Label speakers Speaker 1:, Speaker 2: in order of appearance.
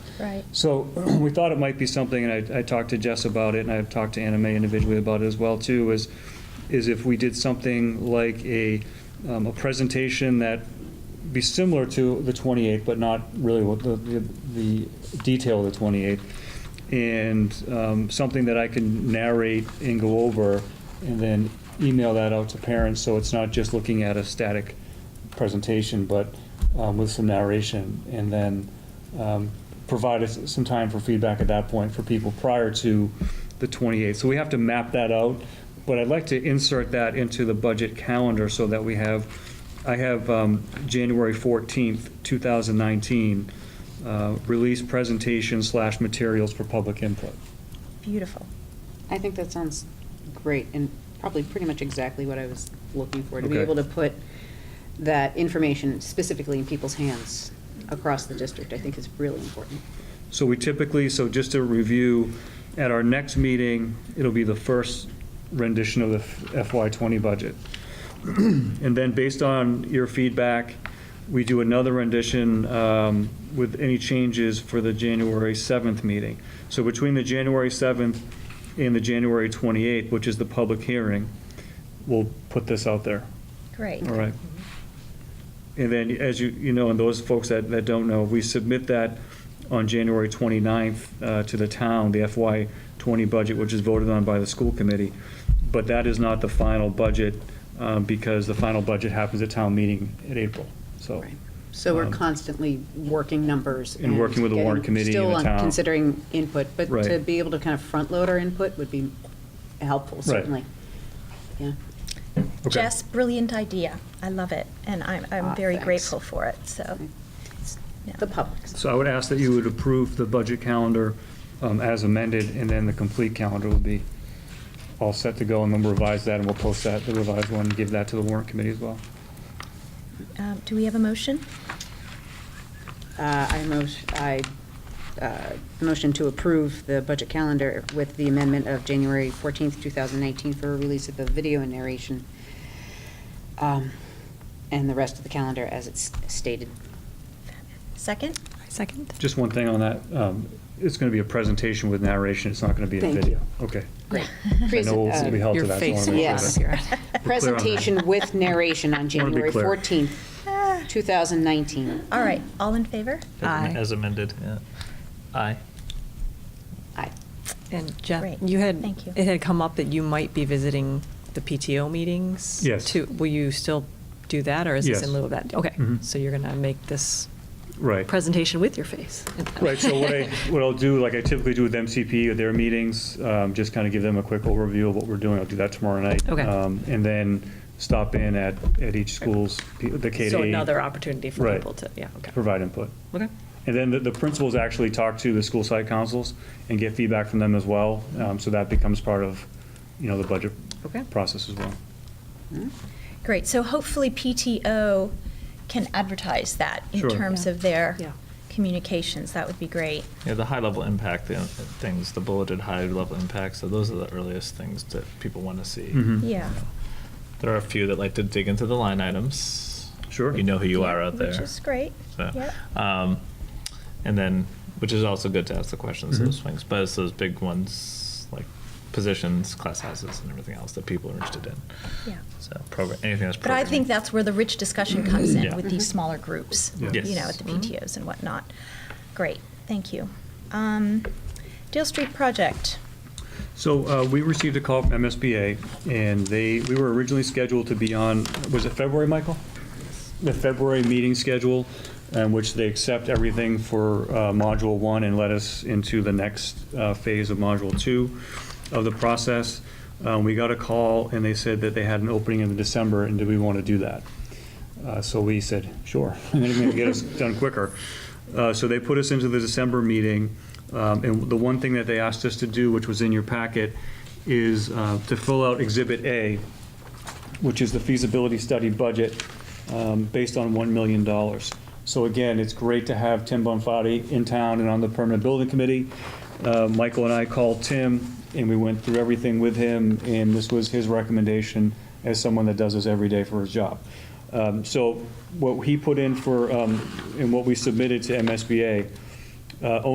Speaker 1: Right.
Speaker 2: So we thought it might be something, and I, I talked to Jess about it, and I've talked to Anna May individually about it as well, too, is, is if we did something like a, um, a presentation that be similar to the 28th, but not really what the, the the detail of the 28th, and um, something that I can narrate and go over, and then email that out to parents, so it's not just looking at a static presentation, but um, with some narration, and then um, provide us some time for feedback at that point for people prior to the 28th. So we have to map that out, but I'd like to insert that into the budget calendar so that we have, I have um, January 14th, 2019, uh, release presentation slash materials for public input.
Speaker 1: Beautiful.
Speaker 3: I think that sounds great, and probably pretty much exactly what I was looking for, to be
Speaker 2: Okay.
Speaker 3: able to put that information specifically in people's hands across the district, I think is really important.
Speaker 2: So we typically, so just to review, at our next meeting, it'll be the first rendition of the FY '20 budget. And then based on your feedback, we do another rendition um, with any changes for the January 7th meeting. So between the January 7th and the January 28th, which is the public hearing, we'll put this out there.
Speaker 1: Great.
Speaker 2: All right. And then, as you, you know, and those folks that, that don't know, we submit that on January 29th uh, to the town, the FY '20 budget, which is voted on by the school committee. But that is not the final budget, um, because the final budget happens at town meeting in April, so.
Speaker 3: Right. So we're
Speaker 2: um,
Speaker 3: constantly working numbers.
Speaker 2: And working with the warrant
Speaker 3: getting-
Speaker 2: committee and the
Speaker 3: Still
Speaker 2: town.
Speaker 3: on- considering input, but to
Speaker 2: Right.
Speaker 3: be able to kind of front-load our input would be helpful, certainly. Yeah.
Speaker 2: Okay.
Speaker 1: Jess, brilliant idea. I love it, and I'm,
Speaker 3: Aw,
Speaker 1: I'm very
Speaker 3: thanks.
Speaker 1: grateful for it, so.
Speaker 3: It's
Speaker 1: yeah.
Speaker 3: The public's.
Speaker 2: So I would ask that you would approve the budget calendar um, as amended, and then the complete calendar will be all set to go, and then we'll revise that, and we'll post that, the revised one, and give that to the warrant committee as well.
Speaker 1: Um, Do we have a motion?
Speaker 3: Uh, I motion, I uh, motion to approve the budget calendar with the amendment of January 14th, 2019 for release of the video and narration, um, and the rest of the calendar as it's stated.
Speaker 1: Second?
Speaker 4: Second?
Speaker 2: Just one thing on that, um, it's going to be a presentation with narration, it's not going to be a
Speaker 3: Thank
Speaker 2: video. Okay.
Speaker 3: Great.
Speaker 2: I know we'll be held to
Speaker 4: uh, Your
Speaker 2: that. so I wanna
Speaker 4: face
Speaker 2: make sure
Speaker 3: Yes.
Speaker 2: that-
Speaker 3: Presentation with narration on
Speaker 2: Wanna be
Speaker 3: January
Speaker 2: clear.
Speaker 3: 14th,
Speaker 1: Ah,
Speaker 3: 2019.
Speaker 1: All right, all in favor?
Speaker 4: Aye.
Speaker 5: As amended, yeah. Aye.
Speaker 3: Aye.
Speaker 4: And Jeff,
Speaker 1: Great.
Speaker 4: you had,
Speaker 1: Thank you.
Speaker 4: it had come up that you might be visiting the PTO meetings?
Speaker 2: Yes.
Speaker 4: too. Will you still do that, or is this
Speaker 2: Yes.
Speaker 4: in lieu of that? Okay,
Speaker 2: Mhm.
Speaker 4: so you're going to make this
Speaker 2: Right.
Speaker 4: presentation with your face?
Speaker 2: Right, so what I, what I'll do, like I typically do with MCP at their meetings, um, just kind of give them a quick overview of what we're doing. I'll do that tomorrow night.
Speaker 4: Okay.
Speaker 2: Um, And then stop in at, at each school's, P- the K to E.
Speaker 4: So
Speaker 2: eight,
Speaker 4: another opportunity for
Speaker 2: Right.
Speaker 4: people to, yeah, okay.
Speaker 2: Provide input.
Speaker 4: Okay.
Speaker 2: And then the, the principals actually talk to the school site councils and get feedback from them as well. Um, So that becomes part of, you know, the budget
Speaker 4: Okay.
Speaker 2: process as well.
Speaker 3: Hmm?
Speaker 1: Great, so hopefully PTO can advertise that in
Speaker 2: Sure.
Speaker 1: terms
Speaker 4: Yeah.
Speaker 1: of their
Speaker 4: Yeah.
Speaker 1: communications. That would be great.
Speaker 5: Yeah, the high-level impact the things, the bulleted high-level impacts, so those are the earliest things that people want to see.
Speaker 2: Mhm.
Speaker 1: Yeah.
Speaker 5: You know, There are a few that like to dig into the line items.
Speaker 2: Sure.
Speaker 5: You know who you are out there.
Speaker 1: Which is great.
Speaker 5: So,
Speaker 1: Yep.
Speaker 5: um, and then, which is also good to ask the questions,
Speaker 2: Mhm.
Speaker 5: those swings, but it's those big ones, like positions, class sizes, and everything else that people are interested in.
Speaker 1: Yeah.
Speaker 5: So program, anything that's
Speaker 1: But I
Speaker 5: programming.
Speaker 1: think that's where the rich discussion comes in
Speaker 5: Yeah.
Speaker 1: with these smaller groups,
Speaker 2: Yeah.
Speaker 1: you know,
Speaker 5: Yes.
Speaker 1: at the PTOs and whatnot. Great, thank you. Um, Dale Street Project,
Speaker 2: So uh, we received a call from MSBA, and they, we were originally scheduled to be on, was it February, Michael? The February meeting schedule, in which they accept everything for uh, Module 1 and let us into the next uh, phase of Module 2 of the process. Uh, We got a call, and they said that they had an opening in December, and do we want to do that? Uh, So we said, sure, and they're going to get us done quicker. Uh, So they put us into the December meeting, um, and the one thing that they asked us to do, which was in your packet, is uh, to fill out Exhibit A, which is the feasibility study budget um, based on $1 million. So again, it's great to have Tim Bonfati in town and on the Permanent Building Committee. Uh, Michael and I called Tim, and we went through everything with him, and this was his recommendation as someone that does this every day for his job. Um, So what he put in for, um, and what we submitted to MSBA, uh,